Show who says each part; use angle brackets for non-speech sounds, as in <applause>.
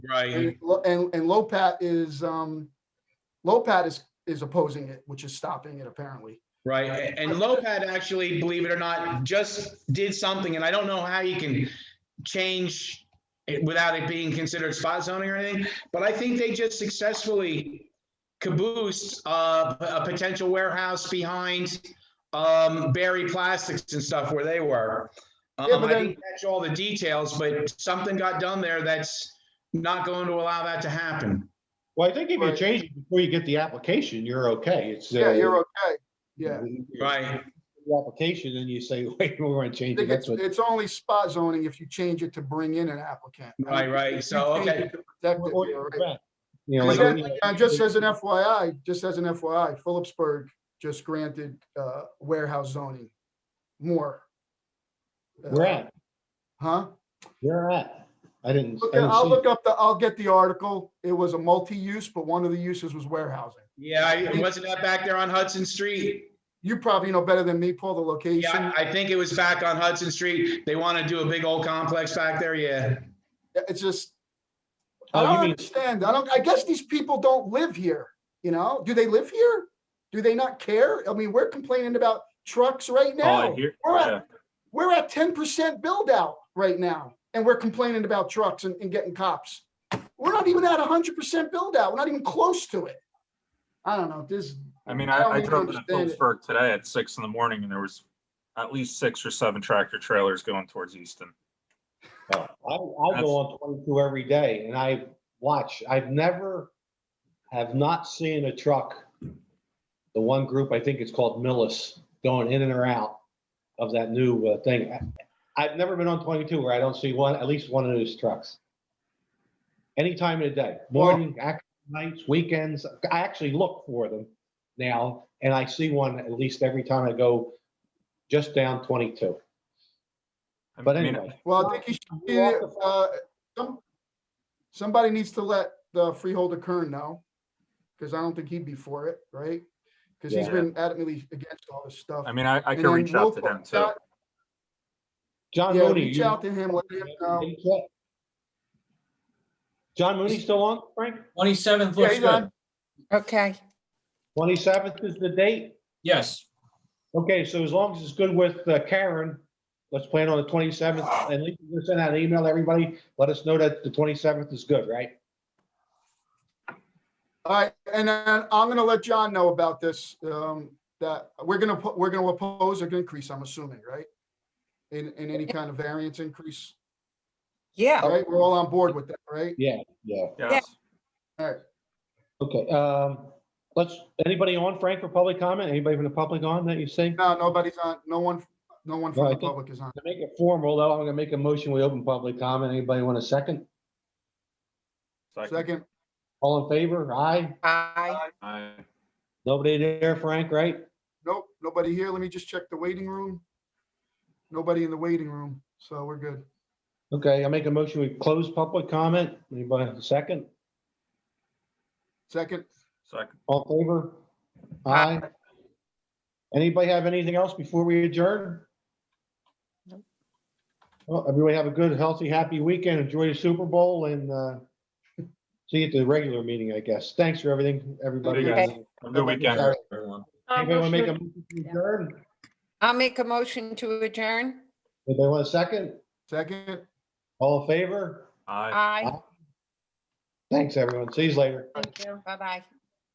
Speaker 1: Right.
Speaker 2: And, Lo- and, and Lopat is, um, Lopat is, is opposing it, which is stopping it apparently.
Speaker 1: Right, a- and Lopad actually, believe it or not, just did something, and I don't know how you can change it without it being considered spot zoning or anything, but I think they just successfully caboosed uh, p- a potential warehouse behind um, Barry Plastics and stuff where they were.
Speaker 2: Yeah,
Speaker 1: Um,
Speaker 2: but
Speaker 1: I didn't catch all the details, but something got done there that's not going to allow that to happen.
Speaker 3: Well, I think if you
Speaker 2: Right.
Speaker 3: change it before you get the application, you're okay. It's.
Speaker 2: Yeah,
Speaker 3: uh,
Speaker 2: you're okay. Yeah.
Speaker 1: Right,
Speaker 3: the Application, and you say, <laughs> wait, we're gonna
Speaker 2: I
Speaker 3: change it.
Speaker 2: think it's,
Speaker 3: That's what,
Speaker 2: it's only spot zoning if you change it to bring in an applicant.
Speaker 1: right, right, so,
Speaker 2: If you change
Speaker 1: okay,
Speaker 2: it to protect it,
Speaker 3: or-
Speaker 2: yeah, right.
Speaker 3: you
Speaker 2: But
Speaker 3: know, like,
Speaker 2: then,
Speaker 3: you know,
Speaker 2: uh, Just as an FYI, just as an FYI, Phillipsburg just granted uh, warehouse zoning more. Uh,
Speaker 3: we're at,
Speaker 2: Huh?
Speaker 3: we're at. I didn't.
Speaker 2: Look,
Speaker 3: I didn't
Speaker 2: I'll
Speaker 3: see
Speaker 2: look up the, I'll get the article. It was a multi-use, but one of the uses was warehousing.
Speaker 1: yeah, I- wasn't that back there on Hudson Street?
Speaker 2: You probably know better than me, Paul, the
Speaker 1: Yeah,
Speaker 2: location.
Speaker 1: I I think it was back on Hudson Street. They want to do a big old complex back there, yeah.
Speaker 2: It's just, I
Speaker 3: Oh, you
Speaker 2: don't
Speaker 3: mean-
Speaker 2: understand. I don't, I guess these people don't live here, you know? Do they live here? Do they not care? I mean, we're complaining about trucks right
Speaker 4: Oh, I
Speaker 2: now.
Speaker 4: hear-
Speaker 2: We're
Speaker 4: yeah.
Speaker 2: at, we're at ten percent build out right now, and we're complaining about trucks and, and getting cops. We're not even at hundred percent build out. We're not even close to it. I don't know, this,
Speaker 4: I mean,
Speaker 2: I
Speaker 4: I,
Speaker 2: don't
Speaker 4: I
Speaker 2: even
Speaker 4: drove to
Speaker 2: understand it.
Speaker 4: Phillipsburg today at six in the morning and there was at least six or seven tractor trailers going towards Easton.
Speaker 3: I, I go on twenty-two every day and I watch, I've never, have not seen a truck. The one group, I think it's called Millis, going in and or out of that new uh, thing. I- I've never been on twenty-two where I don't see one, at least one of those trucks. Any time of the day, morning, act- nights, weekends, I actually look for them now and I see one at least every time I go just down twenty-two,
Speaker 4: I
Speaker 3: but
Speaker 4: mean,
Speaker 3: anyway.
Speaker 2: well, I think you should, be, uh, some, somebody needs to let the freeholder Kern know. Cause I don't think he'd be for it, right? Cause he's
Speaker 4: Yeah.
Speaker 2: been adamantly against all this stuff.
Speaker 4: I mean, I, I
Speaker 2: And
Speaker 4: could
Speaker 2: then
Speaker 4: reach out to
Speaker 2: we'll-
Speaker 4: them too.
Speaker 3: John
Speaker 2: Yeah,
Speaker 3: Mooney.
Speaker 2: reach
Speaker 3: you-
Speaker 2: out to him, let him know.
Speaker 3: John Mooney still on, Frank?
Speaker 5: Twenty-seventh
Speaker 2: Yeah,
Speaker 5: looks
Speaker 2: he's on.
Speaker 5: good.
Speaker 6: Okay,
Speaker 3: Twenty-seventh is the date?
Speaker 5: Yes,
Speaker 3: Okay, so as long as it's good with uh, Karen, let's plan on the twenty-seventh and we can send out an email, to everybody. Let us know that the twenty-seventh is good, right?
Speaker 2: All right, and then I'm gonna let John know about this, um, that we're gonna, po- we're gonna oppose an increase, I'm assuming, right? In, in any kind of variance increase,
Speaker 6: yeah.
Speaker 2: all right? We're all on board with that, right?
Speaker 3: Yeah, yeah.
Speaker 4: Yes.
Speaker 3: Okay, um, let's, anybody on, Frank, for public comment? Anybody from the public on that you see?
Speaker 2: No, nobody's on, no one, no one
Speaker 3: No,
Speaker 2: from
Speaker 3: I
Speaker 2: the
Speaker 3: think-
Speaker 2: public is on.
Speaker 3: To make it formal, though, I'm gonna make a motion. We open public comment. Anybody want a second?
Speaker 4: Second.
Speaker 2: Second,
Speaker 3: All in favor? Aye?
Speaker 6: I,
Speaker 4: Aye.
Speaker 3: Nobody there, Frank, right?
Speaker 2: nope, nobody here, let me just check the waiting room. Nobody in the waiting room, so we're good.
Speaker 3: Okay, I make a motion, we close public comment. Anybody have a second?
Speaker 2: Second,
Speaker 4: Second.
Speaker 3: All in favor? Aye. Anybody have anything else before we adjourn?
Speaker 6: Nope.
Speaker 3: Well, everybody have a good, healthy, happy weekend. Enjoy your Super Bowl and uh, <laughs> see you at the regular meeting, I guess. Thanks for everything, everybody.
Speaker 4: Okay.
Speaker 3: Anybody
Speaker 4: Have a good weekend, everyone.
Speaker 3: want to make a motion to adjourn? Anybody
Speaker 6: I'll make a motion to adjourn.
Speaker 3: want a second?
Speaker 2: second,
Speaker 3: All in favor?
Speaker 4: Aye.
Speaker 6: Aye,
Speaker 3: Thanks, everyone. See you later.
Speaker 6: bye-bye.